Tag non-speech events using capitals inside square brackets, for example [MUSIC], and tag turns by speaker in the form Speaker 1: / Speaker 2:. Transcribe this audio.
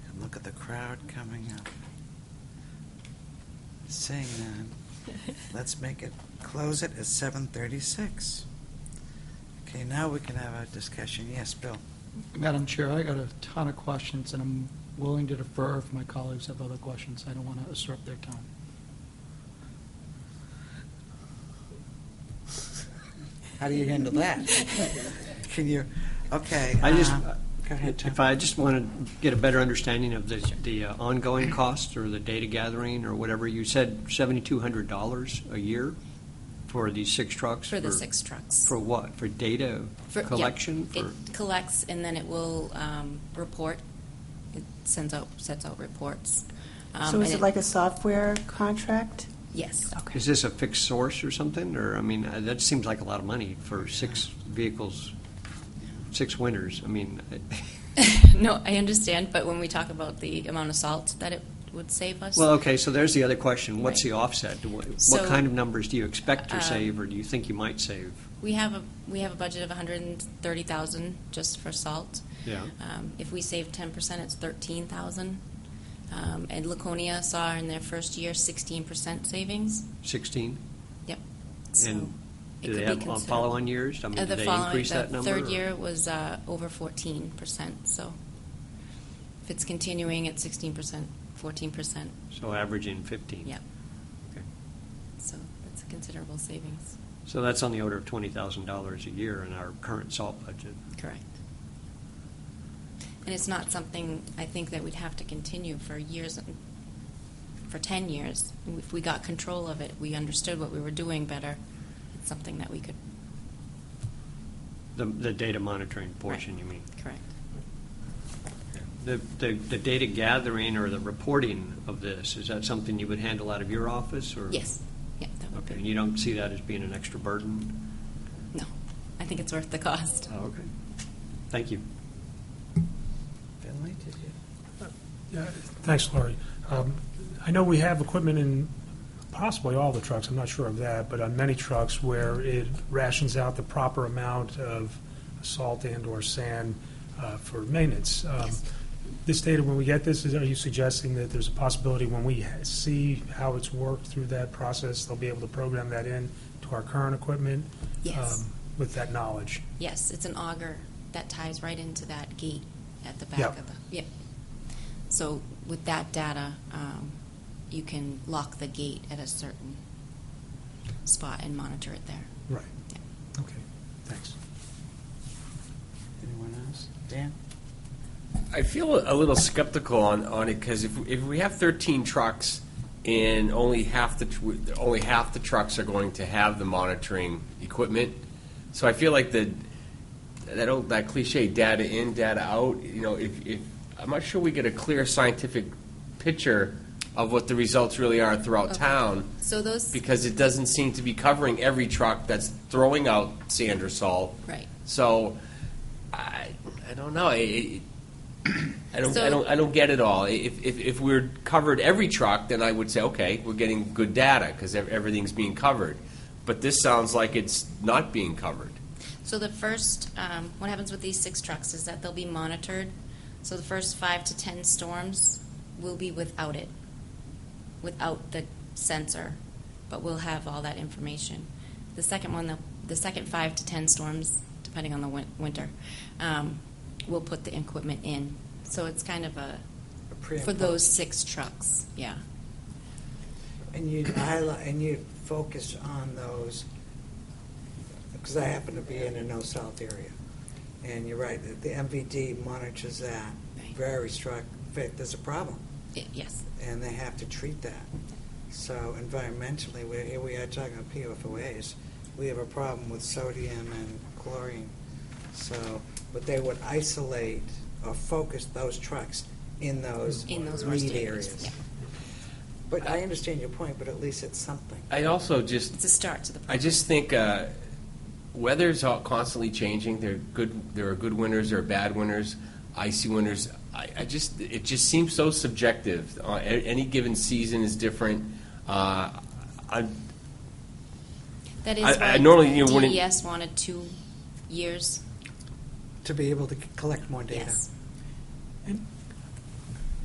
Speaker 1: crowd coming up. Seeing none,
Speaker 2: [LAUGHS]
Speaker 1: let's make it, close it at 7:36. Okay, now we can have a discussion. Yes, Bill?
Speaker 3: Madam Chair, I got a ton of questions, and I'm willing to defer if my colleagues have other questions. I don't want to usurp their time.
Speaker 1: How do you handle that? Can you, okay.
Speaker 4: I just,
Speaker 1: uh, Go ahead, Tom.
Speaker 4: if I just want to get a better understanding of the, the uh, ongoing costs or the data gathering or whatever, you said $7,200 a year for these six
Speaker 2: [LAUGHS]
Speaker 4: trucks?
Speaker 2: For the six trucks.
Speaker 4: For what? For data
Speaker 2: For- yeah,
Speaker 4: collection? For
Speaker 2: It collects, and then it will um, report, it sends out, sets out reports. Um,
Speaker 5: So is
Speaker 2: and
Speaker 5: it like a software contract?
Speaker 2: Yes.
Speaker 5: Okay.
Speaker 4: Is this a fixed source or something? Or, I mean, uh, that seems like a lot of money for six vehicles, six winters. I mean,
Speaker 2: [LAUGHS] [LAUGHS]
Speaker 4: [LAUGHS]
Speaker 2: No, I understand, but when we talk about the amount of salt that it would save us.
Speaker 4: well, okay, so there's the other question. What's
Speaker 2: Right.
Speaker 4: the offset? What what
Speaker 2: So,
Speaker 4: kind of numbers do you expect
Speaker 2: um,
Speaker 4: to save or do you think you might save?
Speaker 2: We have a, we have a budget of 130,000 just for salt.
Speaker 4: Yeah.
Speaker 2: Um, If we save 10%, it's 13,000. Um, And Laconia saw in their first year 16% savings.
Speaker 4: 16?
Speaker 2: Yep. So
Speaker 4: And
Speaker 2: it
Speaker 4: do
Speaker 2: could
Speaker 4: they
Speaker 2: be
Speaker 4: have on
Speaker 2: considered-
Speaker 4: follow-on years? I
Speaker 2: Uh,
Speaker 4: mean, do
Speaker 2: the
Speaker 4: they
Speaker 2: following-
Speaker 4: increase
Speaker 2: the
Speaker 4: that number?
Speaker 2: Third
Speaker 4: or-
Speaker 2: year was uh, over fourteen percent, so if it's continuing at sixteen percent, fourteen percent,
Speaker 4: So averaging 15?
Speaker 2: Yep.
Speaker 4: Okay.
Speaker 2: so that's a considerable savings.
Speaker 4: So that's on the order of $20,000 a year in our current salt budget.
Speaker 2: Correct. And it's not something, I think, that we'd have to continue for years, and- for ten years. If we got control of it, we understood what we were doing better, it's something that we could,
Speaker 4: The, the data monitoring portion, you mean?
Speaker 2: correct.
Speaker 4: The, the, the data gathering or the reporting of this, is that something you would handle out of your office or?
Speaker 2: Yes, yeah, that would
Speaker 4: Okay,
Speaker 2: be.
Speaker 4: and you don't see that as being an extra burden?
Speaker 2: No, I think it's worth the cost.
Speaker 4: Oh, Okay. Thank you.
Speaker 1: Finley, did you?
Speaker 6: Yeah, Thanks, Laurie. Um, I know we have equipment in possibly all the trucks, I'm not sure of that, but on many trucks where it rations out the proper amount of salt and/or sand uh, for maintenance. Um,
Speaker 2: Yes.
Speaker 6: This data, when we get this, is- are you suggesting that there's a possibility when we ha- see how it's worked through that process, they'll be able to program that in to our current equipment?
Speaker 2: Yes.
Speaker 6: um, With that knowledge?
Speaker 2: Yes, it's an auger that ties right into that gate at the back
Speaker 6: Yep.
Speaker 2: of the, yep. So with that data, um, you can lock the gate at a certain spot and monitor it there.
Speaker 6: Right.
Speaker 2: Yeah.
Speaker 6: Okay, thanks.
Speaker 1: Anyone else? Dan?
Speaker 7: I feel a little skeptical on, on it because if, if we have 13 trucks and only half the tr- only half the trucks are going to have the monitoring equipment, so I feel like the that old that cliche data in data out. You know, if, if I'm not sure we get a clear scientific picture of what the results really are throughout
Speaker 2: Okay.
Speaker 7: town
Speaker 2: So those,
Speaker 7: because it doesn't seem to be covering every truck that's throwing out sand or salt.
Speaker 2: right.
Speaker 7: So, I, I don't know. I, I- I don't,
Speaker 2: So-
Speaker 7: I don't, I don't get it all. If, if, if we're covered every truck, then I would say, okay, we're getting good data because everything's being covered. But this sounds like it's not being covered.
Speaker 2: So the first, um, what happens with these six trucks is that they'll be monitored. So the first five to 10 storms will be without it, without the sensor, but we'll have all that information. The second one, the, the second five to 10 storms, depending on the win- winter, um, we'll put the equipment in. So it's kind of a,
Speaker 1: A pre and
Speaker 2: for those
Speaker 1: post.
Speaker 2: six trucks, yeah.
Speaker 1: And you highlight, and you focus on those, because I happen to be in a no-south area. And you're right, the- the MVD monitors that
Speaker 2: Right.
Speaker 1: very struck, in fact, there's a problem,
Speaker 2: I- yes,
Speaker 1: and they have to treat that. So environmentally, we're, here we are talking about PFOAs, we have a problem with sodium and chlorine. So, but they would isolate or focus those trucks in those
Speaker 2: in those worst
Speaker 1: lead
Speaker 2: areas.
Speaker 1: areas.
Speaker 2: yeah. Uh,
Speaker 1: But I understand your point, but at least it's something.
Speaker 7: I also just
Speaker 2: It's a start to the
Speaker 7: I
Speaker 2: project.
Speaker 7: just think uh, weather's all constantly changing. There are good, there are good winters, there are bad winters, icy winters. I, I just, it just seems so subjective. Uh, a- any given season is different. Uh, I,
Speaker 2: That
Speaker 7: I-
Speaker 2: is
Speaker 7: I normally,
Speaker 2: why
Speaker 7: you know, when it-
Speaker 2: DES wanted two years
Speaker 1: to be able to c- collect more data.
Speaker 2: Yes.
Speaker 6: And